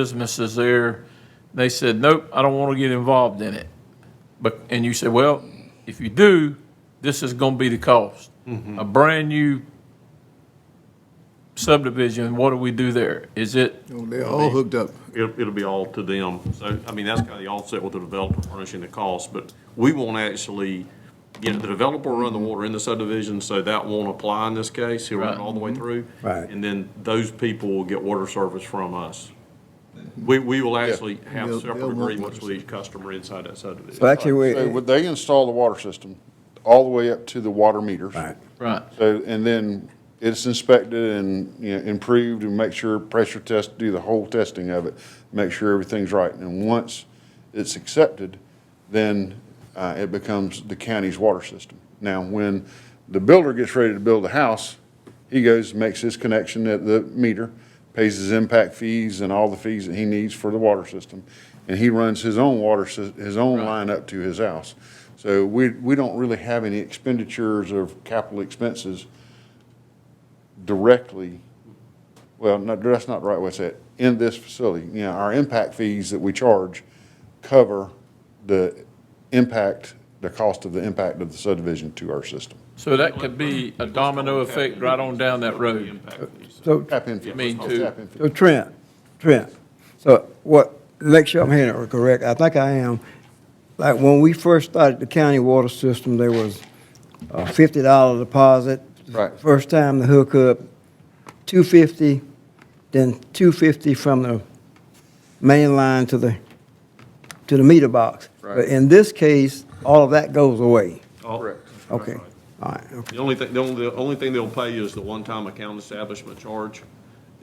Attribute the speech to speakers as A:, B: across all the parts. A: businesses there. They said, nope, I don't want to get involved in it. But, and you said, well, if you do, this is going to be the cost. A brand-new subdivision, what do we do there? Is it,
B: Oh, They're all hooked up.
C: It'll, it'll be all to them. So, I mean, that's kind of the offset with the developer furnishing the cost, but we won't actually, you know, the developer will run the water in the subdivision, so that won't apply in this case. He'll run it
A: Right.
C: all the way through.
D: Right.
C: And then those people will get water service from us. We, we will actually have
B: They'll- they'll
C: separate
B: want
C: agreements
B: water
C: with each customer inside that subdivision.
D: So actually,
E: So
D: we,
E: would they install the water system all the way up to the water meters?
D: right,
A: right,
E: So, and then it's inspected and, you know, improved and make sure, pressure test, do the whole testing of it, make sure everything's right. And once it's accepted, then uh, it becomes the county's water system. Now, when the builder gets ready to build a house, he goes, makes his connection at the meter, pays his impact fees and all the fees that he needs for the water system. And he runs his own water, sys- his own line up to his house. So we, we don't really have any expenditures of capital expenses directly, well, no, that's not the right way to say it, in this facility. You know, our impact fees that we charge cover the impact, the cost of the impact of the subdivision to our system.
A: so that could be a domino effect right on down that road.
C: Impact fees.
D: so,
E: Tap in fee.
A: I mean, to-
E: Tap in fee.
D: so Trent, Trent, so what, make sure I'm hearing it correct, I think I am. Like, when we first started the county water system, there was a fifty dollar deposit.
E: Right.
D: First time the hookup, two fifty, then two fifty from the main line to the, to the meter box.
E: Right.
D: But in this case, all of that goes away,
C: Correct.
D: okay, all right, okay.
C: The only thing, the only, the only thing they'll pay is the one-time account establishment charge,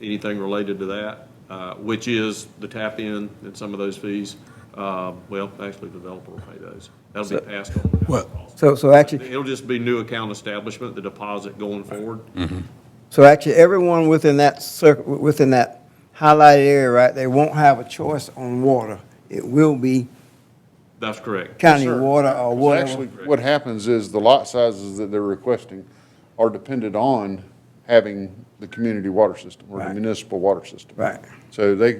C: anything related to that, uh, which is the tap-in and some of those fees. Uh, Well, actually, the developer will pay those. That'll be passed on.
B: Well-
D: So, so actually,
C: It'll just be new account establishment, the deposit going forward.
D: So actually, everyone within that circ, within that highlighted area, right, they won't have a choice on water. It will be
C: That's correct.
D: county
E: Sure.
D: water or
E: So Actually,
D: whatever.
E: what happens is the lot sizes that they're requesting are dependent on having the community water system or the
D: Right.
E: municipal water system.
D: Right.
E: So they,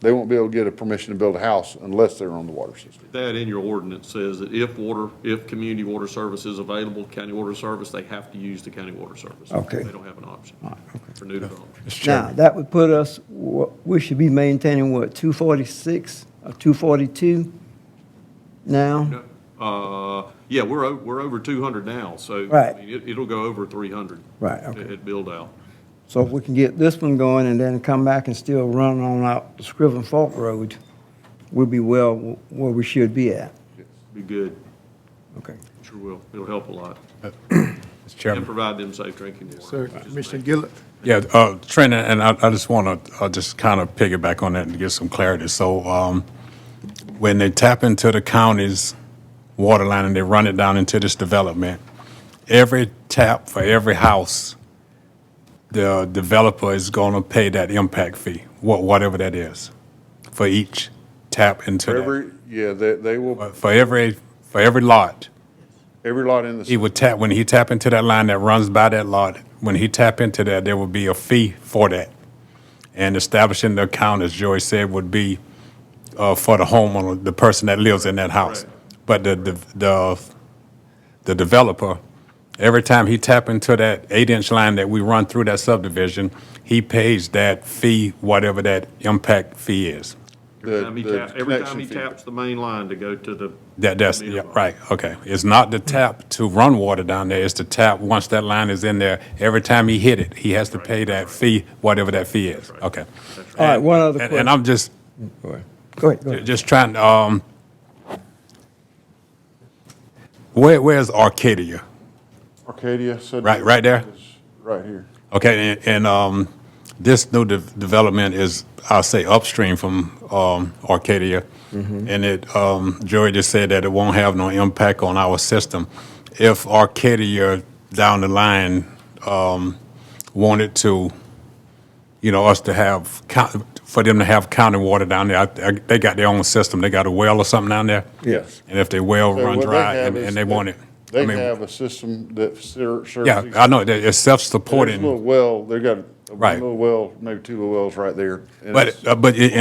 E: they won't be able to get a permission to build a house unless they're on the water system.
C: That in your ordinance says that if water, if community water service is available, county water service, they have to use the county water service.
D: Okay.
C: They don't have an option for new development.
D: Now, that would put us, wha- we should be maintaining what, two forty-six or two forty-two now?
C: Uh, Yeah, we're, o- we're over 200 now, so. I
D: Right.
C: mean, it- It'll go over 300.
D: Right, okay.
C: At build-out.
D: So if we can get this one going and then come back and still run on out the Scriven Fault Road, we'll be well w- where we should be at.
C: Be good.
D: Okay.
C: Sure will. It'll help a lot.
F: Mr.
C: And
F: Chairman.
C: provide them safe drinking water.
B: Sir,
C: which is
B: Commissioner Gillett,
F: Yeah, uh, Trent, and I, I just want to, uh just kind of piggyback on that and get some clarity. So, um, when they tap into the county's water line and they run it down into this development, every tap for every house, the developer is going to pay that impact fee, wha- whatever that is, for each tap into that.
E: Every, yeah, they, they will,
F: But For every, for every lot.
E: every lot in
F: He
E: the,
F: would tap, when he tap into that line that runs by that lot, when he tap into that, there would be a fee for that. And establishing the account, as Joy said, would be uh, for the homeowner, the person that lives in that house.
C: Correct.
F: But the, the, the, the developer, every time he tap into that eight-inch line that we run through that subdivision, he pays that fee, whatever that impact fee is.
C: Every time he
E: the- the
C: taps, every time
E: connection
C: he
E: fee.
C: taps the main line to go to the.
F: That, that's,
C: meter
F: yeah,
C: box.
F: right, okay. It's not the tap to run water down there, it's the tap, once that line is in there, every time he hit it, he has to pay that fee, whatever that fee is, okay.
D: All right, one other
F: And,
D: question.
F: and I'm just,
D: Go ahead, go ahead.
F: just trying, to, um, where, where's Arcadia?
E: Arcadia said.
F: Right- right there?
E: Right here.
F: Okay, and, and, um, this new de- development is, I'll say upstream from, um, Arcadia.
E: Mm-hmm.
F: And it, um, Joey just said that it won't have no impact on our system. If Arcadia down the line, um, wanted to, you know, us to have, co- for them to have county water down there, I- I- they got their own system, they got a well or something down there?
E: Yes.
F: And if their well
E: So
F: run
E: what they
F: dry
E: have
F: and,
E: is
F: and they
E: that
F: want it? I
E: They
F: mean,
E: have a system that ser- serves.
F: Yeah,
E: these-
F: I know, that it's
E: There's a
F: self-supporting,
E: little well, they've got a one
F: Right.
E: little well, maybe two little wells right there. and
F: but,
E: it's-
F: uh, but i-